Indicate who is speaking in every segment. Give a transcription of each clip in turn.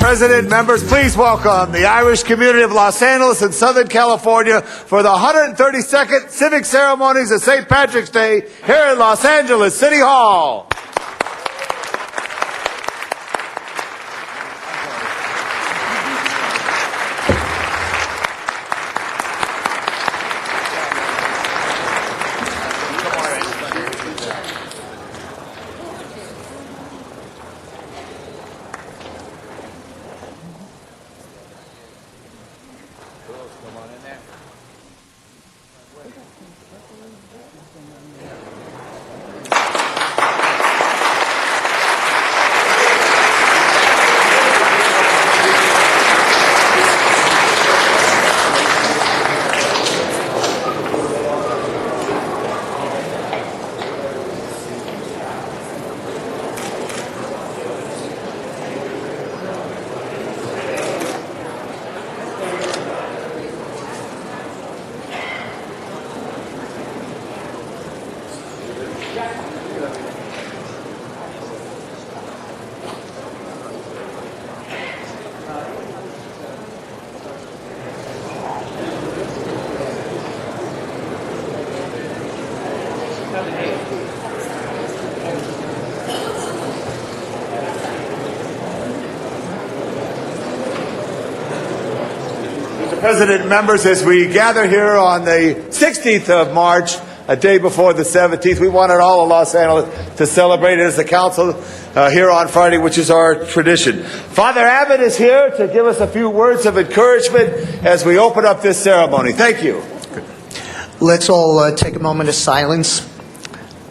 Speaker 1: resident members, please welcome the Irish community of Los Angeles and Southern California for the 132nd Civic Ceremonies of St. Patrick's Day here in Los Angeles City Hall. President members, as we gather here on the 16th of March, a day before the 17th, we wanted all of Los Angeles to celebrate it as a council uh, here on Friday, which is our tradition. Father Abbott is here to give us a few words of encouragement as we open up this ceremony. Thank you.
Speaker 2: Let's all uh, take a moment of silence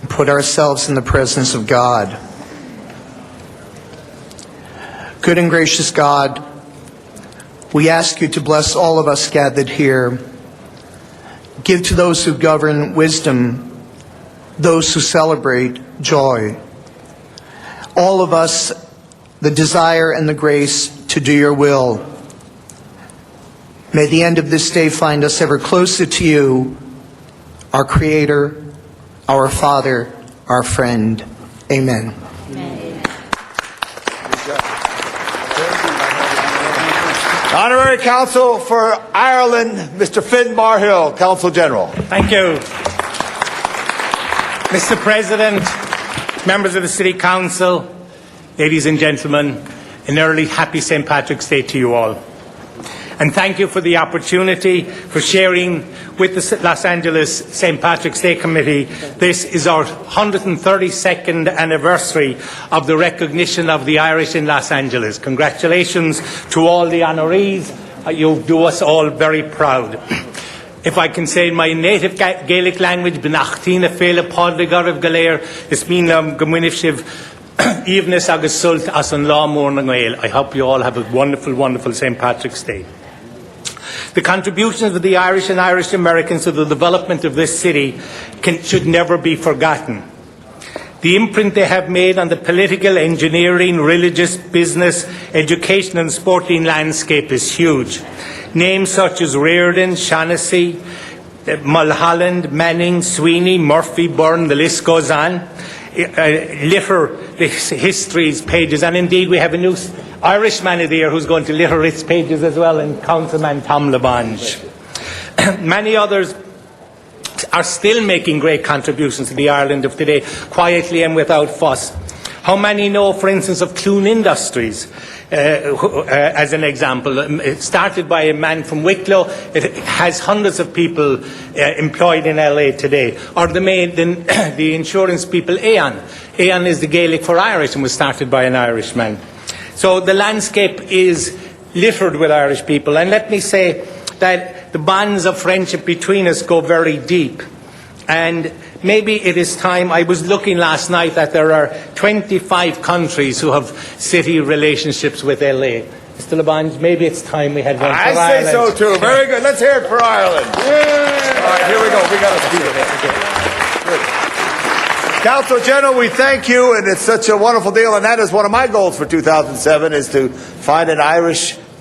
Speaker 2: and put ourselves in the presence of God. Good and gracious God, we ask you to bless all of us gathered here. Give to those who govern wisdom, those who celebrate joy. All of us the desire and the grace to do your will. May the end of this day find us ever closer to you, our Creator, our Father, our friend. Amen.
Speaker 1: Honorary Counsel for Ireland, Mr. Finn Barhill, Counsel General.
Speaker 3: Thank you. Mr. President, members of the City Council, ladies and gentlemen, an early happy St. Patrick's Day to you all. And thank you for the opportunity for sharing with the S- Los Angeles St. Patrick's Day Committee. This is our 132nd anniversary of the recognition of the Irish in Los Angeles. Congratulations to all the honorees. Uh, You do us all very proud. If I can say in my native Ga- Gaelic language, Benachtina Fela Podligar of Galair, Isminam Gomwinifshiv, Evenis Agus Sult As an Law Morning I hope you all have a wonderful, wonderful St. Patrick's Day. The contributions of the Irish and Irish Americans to the development of this city can, should never be forgotten. The imprint they have made on the political, engineering, religious, business, education, and sporting landscape is huge. Names such as Reardon, Shaughnessy, eh, Mulholland, Manning, Sweeney, Murphy, Byrne, the list goes on, eh, eh, litter the his- history's pages. And indeed, we have a new s- Irishman of the year who's going to litter its pages as well, and Councilman Tom Lavange. Many others are still making great contributions to the Ireland of today, quietly and without fuss. How many know, for instance, of Clune Industries, uh, who- uh, as an example? Um, It started by a man from Wicklow, it has hundreds of people uh, employed in LA today. Or the, main, the, the insurance people, Aon. Aon is the Gaelic for Irish and was started by an Irishman. So the landscape is littered with Irish people. And let me say that the bonds of friendship between us go very deep. And maybe it is time, I was looking last night that there are 25 countries who have city relationships with LA. Mr. Labange, maybe it's time we had one for
Speaker 1: I say so
Speaker 3: Ireland.
Speaker 1: too. Very good. Let's hear it for Ireland. All right, here we go. We got a speaker. Good. Council General, we thank you, and it's such a wonderful deal. And that is one of my goals for 2007 is to find an Irish